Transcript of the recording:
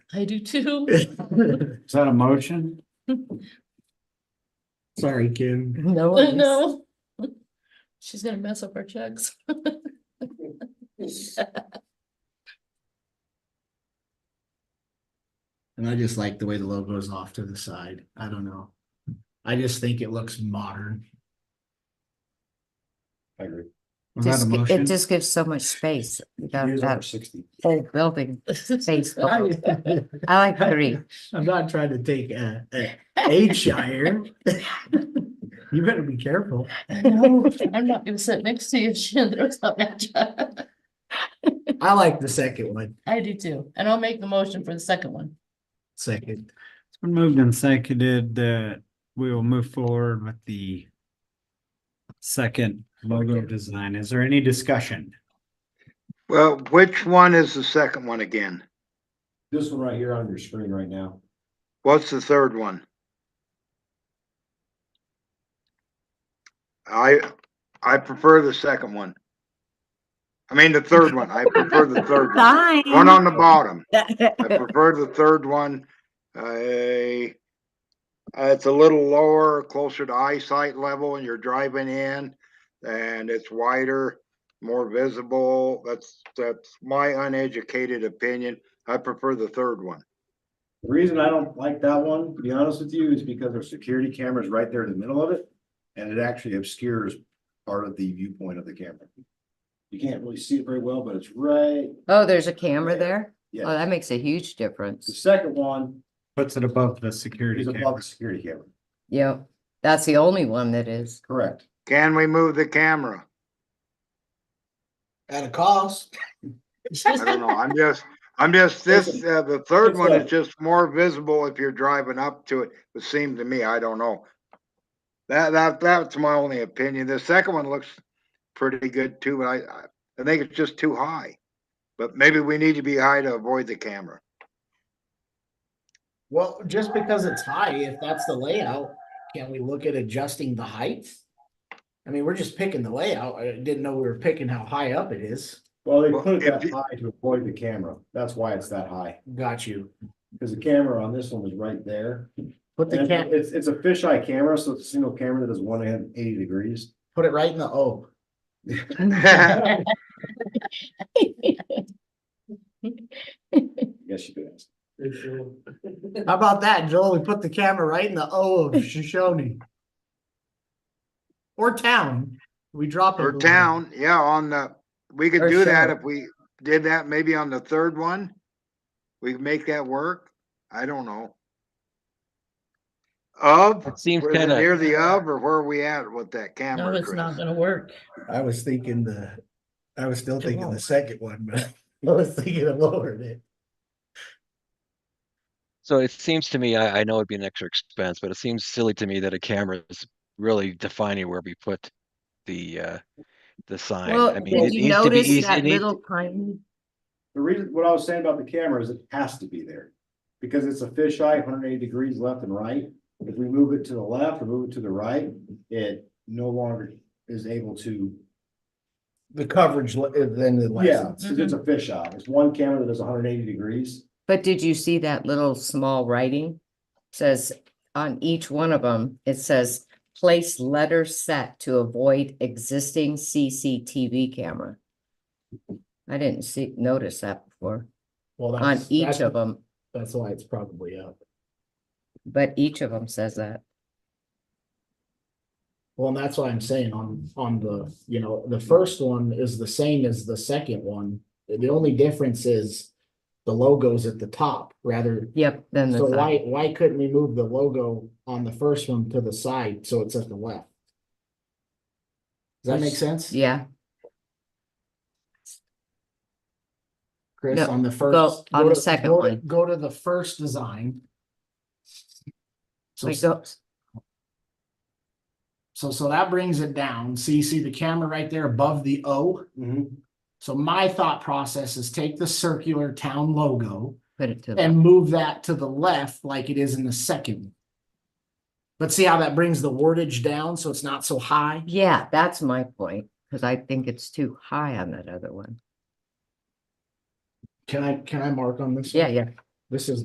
I do too. Is that a motion? Sorry, Kim. No. I worries. know. She's gonna mess up our checks. And I just like the way the logo is off to the side. I don't know. I just think it looks modern. I agree. Was that a Just gi- motion? It just gives so much space. You got Use our that sixty. whole building. Space. I- I like three. I'm not trying to take a, a age shire. You better be careful. No, I'm not gonna sit next to you, Shandra, it's not that job. I like the second one, I do too, and I'll make the motion for the second one. second. It's been moved and seconded that we will move forward with the second logo design. Is there any discussion? Well, which one is the second one again? This one right here on your screen right now. What's the third one? I, I prefer the second one. I mean, the third one. I prefer the third one. One on the bottom. I prefer the third one. I, uh, it's a little lower, closer to eyesight level when you're driving in and it's wider, more visible. That's, that's my uneducated opinion. I prefer the third one. The reason I don't like that one, to be honest with you, is because there's security cameras right there in the middle of it. And it actually obscures part of the viewpoint of the camera. You can't really see it very well, but it's right, Oh, there's a camera there? Oh, yeah. that makes a huge The difference. second one Puts it above the is security above the camera. security camera, Yep. That's the only one that is. correct? Can we move the camera? At a cost. I don't know. I'm just, I'm just, this, uh, the third it's one a- is just more visible if you're driving up to it. It seemed to me, I don't know. That, that, that's my only opinion. The second one looks pretty good too, but I, I- I think it's just too high. But maybe we need to be high to avoid the camera. Well, just because it's high, if that's the layout, can we look at adjusting the height? I mean, we're just picking the layout. I didn't know we were picking how high up it is. Well, they Well, put it if that you- high to avoid the camera. That's why it's that high. Got you. Because the camera on this one was right there. Put the And cat, It's, it's a fisheye camera, so it's a single camera that is one hundred and eighty degrees. put it right in the O. Yes, you could ask. How about that, Joel? We put the camera right in the O of Shoshone. Or town. We drop it. a Or little. town, yeah, on the, we could Or do that sheriff. if we did that maybe on the third one. We could make that work. I don't know. Of? It seems Were they kind of, Near the of, or where are we at with that No, camera? it's not Chris? gonna work. I was thinking the, I was still thinking the won't. second one, but I was thinking it lowered it. so it seems to me, I, I know it'd be an extra expense, but it seems silly to me that a camera is really defining where we put the, uh, the sign. I Well, mean, it did you needs to be notice easy. that it needs- little tiny? The reason, what I was saying about the camera is it has to be there. Because it's a fisheye, hundred and eighty degrees left and right. If we move it to the left or move it to the right, it no longer is able to. The coverage, le- uh, then the Yeah, license. because it's a fisheye. It's one camera that is hundred and eighty degrees. But did you see that little small writing? Says on each one of them, it says place letter set to avoid existing CCTV camera. I didn't see, notice that before Well, on that's- each that's- of them, That's why it's probably up. but each of them says that. Well, and that's why I'm saying on, on the, you know, the first one is the same as the second one. The only difference is the logo's at the top rather. Yep, then the So why, sign. why couldn't we move the logo on the first one to the side so it's at the left? Does that make sense? Yeah, Chris, No, on the first. on go the to- second go to- one. Go to the first design. So, like go, so, so that brings it down. So you see the camera right there above the O? So my thought process is take the circular town logo put it to, the- and move that to the left like it is in the second. But see how that brings the wordage down so it's not so high? yeah, that's my point, because I think it's too high on that other one. Can I, can I mark on this? Yeah, yeah. This is